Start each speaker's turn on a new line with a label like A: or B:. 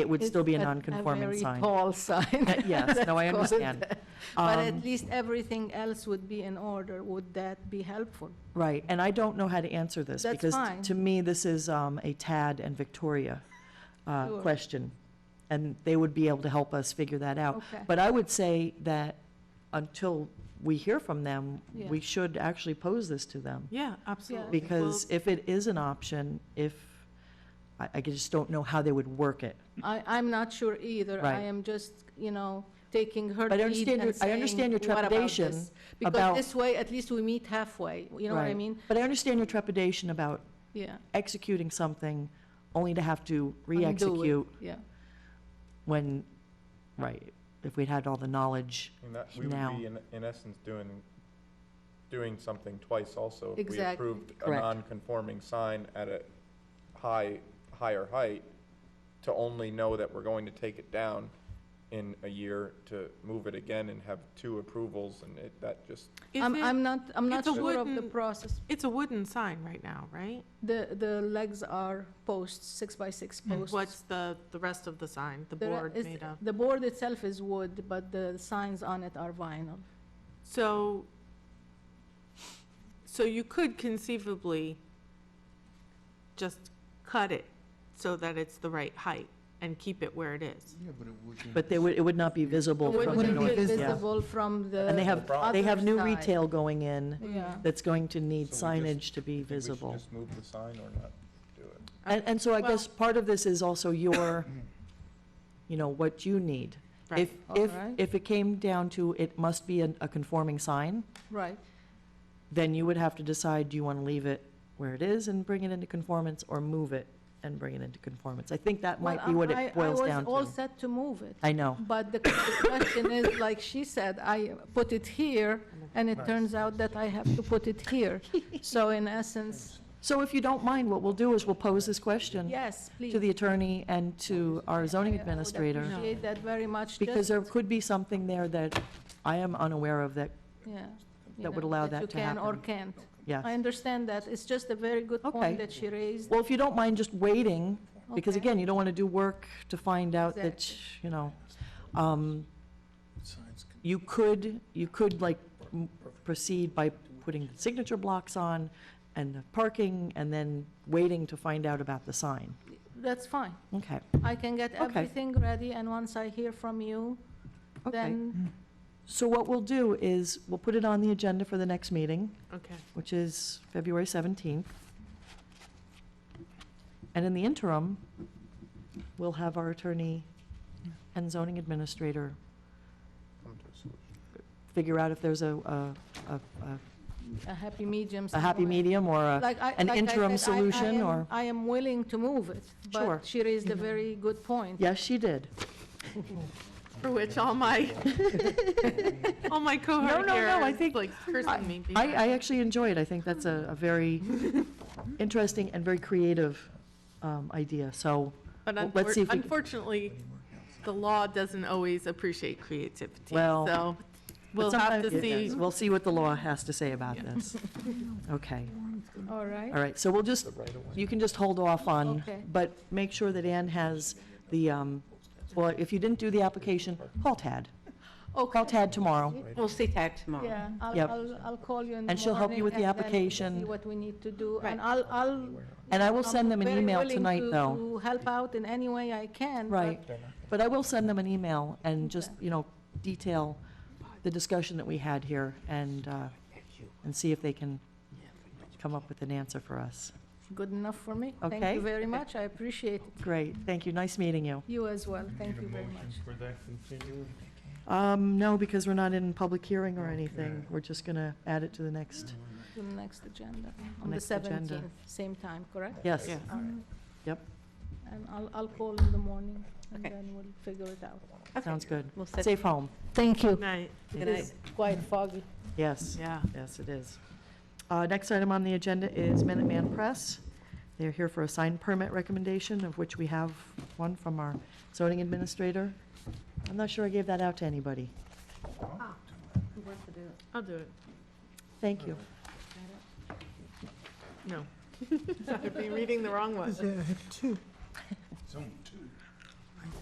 A: it would still be a
B: It's
A: non-conforming
B: A very
A: sign.
B: tall sign.
A: Uh, yes, no, I
B: That's called-
A: understand.
B: But
A: Um,
B: at least everything else would be in order. Would that be helpful?
A: Right, and I don't know how to answer this.
B: That's
A: because t-
B: fine.
A: To me, this is um, a Tad and Victoria uh,
B: Sure.
A: question, and they would be able to help us figure that out.
B: Okay.
A: Oh, But I would say that until we hear from them,
B: Yeah.
A: we should actually pose this to them.
C: Yeah, absolutely.
A: Because if it is an option, if, I I just don't know how they would work it.
B: I, I'm not sure either. I
A: Right.
B: am just, you know, taking her
A: But I
B: lead
A: understand
B: and
A: your- I understand your
B: saying, "What about
A: trepidation
B: this?"
A: about-
B: Because this way, at least we meet halfway, you know what I
A: Right.
B: mean?
A: But I understand your trepidation about
B: Yeah.
A: executing something only to have to
B: undo it.
A: re-execute
B: Yeah,
A: when, right, if we'd had all the knowledge.
D: And that, we
A: Now.
D: would be in, in essence doing, doing something twice also. If We
B: Exact-
D: approved a
A: Correct.
D: non-conforming sign at a high, higher height to only know that we're going to take it down in a year to move it again and have two approvals and it, that just,
C: Is
B: I'm,
C: it-
B: I'm not, I'm not
C: it's a
B: sure of the
C: wooden-
B: process.
C: It's a wooden sign right now, right?
B: The, the legs are posts, six by six posts.
C: What's the, the rest of the sign, the
B: There
C: board
B: is-
C: made of?
B: The board itself is wood, but the signs on it are vinyl.
C: So, so you could conceivably just cut it so that it's the right height and keep it where it is.
E: Yeah, but it wouldn't.
A: But they would, it would not be visible
B: It
A: from the
B: Wouldn't be
A: north. yeah.
B: visible from the.
A: And they have, they have new
B: other side.
A: retail going in
B: Yeah.
A: that's going to need
D: So we just-
A: signage to be
D: I think we should
A: visible.
D: just move the sign or not do it.
A: And, and so I
C: Well-
A: guess part of this is also your, you know, what you need. If, if,
B: Alright.
A: if it came down to it must be a, a conforming sign,
B: Right.
A: then you would have to decide, do you want to leave it where it is and bring it into conformance, or move it and bring it into conformance? I think that might be
B: Well,
A: what
B: I-
A: it boils down
B: I was all
A: to.
B: set to move it,
A: I know.
B: but the the question is, like she said, I put it here, and it turns out that I have to put it here. So in essence,
A: So if you don't mind, what we'll do is we'll pose this question
B: yes, please.
A: to the attorney and to our zoning
B: I would
A: administrator,
B: appreciate that very much.
A: because
B: just,
A: there could be something there that I am unaware of that,
B: yeah, you
A: that would
B: know,
A: allow that to
B: you can or
A: happen.
B: can't. I
A: yeah.
B: understand that. It's just a very good
A: Okay.
B: point that she raised.
A: Well, if you don't mind just waiting, because
B: Okay.
A: again, you don't want to do work to find out that,
B: Exactly.
A: you know, um, you could, you could like m- proceed by putting the signature blocks on and the parking, and then waiting to find out about the sign.
B: That's fine.
A: Okay,
B: I can get
A: Okay.
B: everything ready, and once I hear from you,
A: okay.
B: then,
A: So what we'll do is, we'll put it on the agenda for the next meeting,
C: Okay.
A: which is February 17th. And in the interim, we'll have our attorney and zoning administrator
D: Come to a solution.
A: figure out if there's a, a- a- a-
B: a happy medium.
A: a happy
B: somewhere.
A: medium or a,
B: Like I-
A: an
B: like I
A: interim
B: said, I- I
A: solution,
B: am-
A: or-
B: I am willing to move it,
A: Sure.
B: but she raised a very good point.
A: yes, she did.
C: For which all my, all my cohort
A: no,
C: here
A: no, I
C: is
A: think-
C: like cursing me.
A: I, I
C: behind.
A: actually enjoy it. I think that's a, a very interesting and very creative um, idea. So,
C: But
A: well, let's see
C: unfor-
A: if we can-
C: unfortunately, the law doesn't always appreciate creativity.
A: Well,
C: So
A: but
C: we'll have
A: sometimes
C: to
A: it
C: see.
A: does. We'll see what the law has to say about this. Okay,
B: All right?
A: all right. So we'll just, you can just hold off on,
B: Okay.
A: but make sure that Ann has the, um, well, if you didn't do the application, call Tad. Call Tad tomorrow.
F: We'll see Tad tomorrow.
B: Yeah, I'll,
A: Yep.
B: I'll, I'll call you in the morning.
A: And she'll help you with the
B: and then
A: application.
B: See what we need to do,
F: Right.
B: and I'll, I'll.
A: And I will send them an
B: I'm very
A: email
B: willing
A: tonight,
B: to-
A: though.
B: To help out in any way I can. but
A: Right, but I will send them an email and just,
B: Okay.
A: you know, detail the discussion that we had here and, uh, and see if they can come up with an answer for us.
B: Good enough for me. Thank
A: Okay.
B: you very much, I appreciate it.
A: Great, thank you, nice meeting you.
B: You as well, thank you very much.
G: for that continuum?
A: Um, no, because we're not in public hearing or anything, we're just gonna add it to the next,
B: To the next agenda, on the
A: Next agenda.
B: 17th, same time, correct?
A: yes,
C: Yeah.
B: All right.
A: Yep.
B: And I'll, I'll call in the morning, and
F: Okay.
B: then we'll figure it out.
A: sounds good.
F: We'll set-
A: Safe home,
B: Thank you.
C: Night.
F: Good
B: It is
F: night.
B: quite foggy.
A: yes,
C: Yeah.
A: yes, it is. Uh, next item on the agenda is Minuteman Press. They're here for a sign permit recommendation, of which we have one from our zoning administrator. I'm not sure I gave that out to anybody.
C: I'll do it.
A: Thank you.
C: No. I'd be reading the wrong one.
E: Zone two.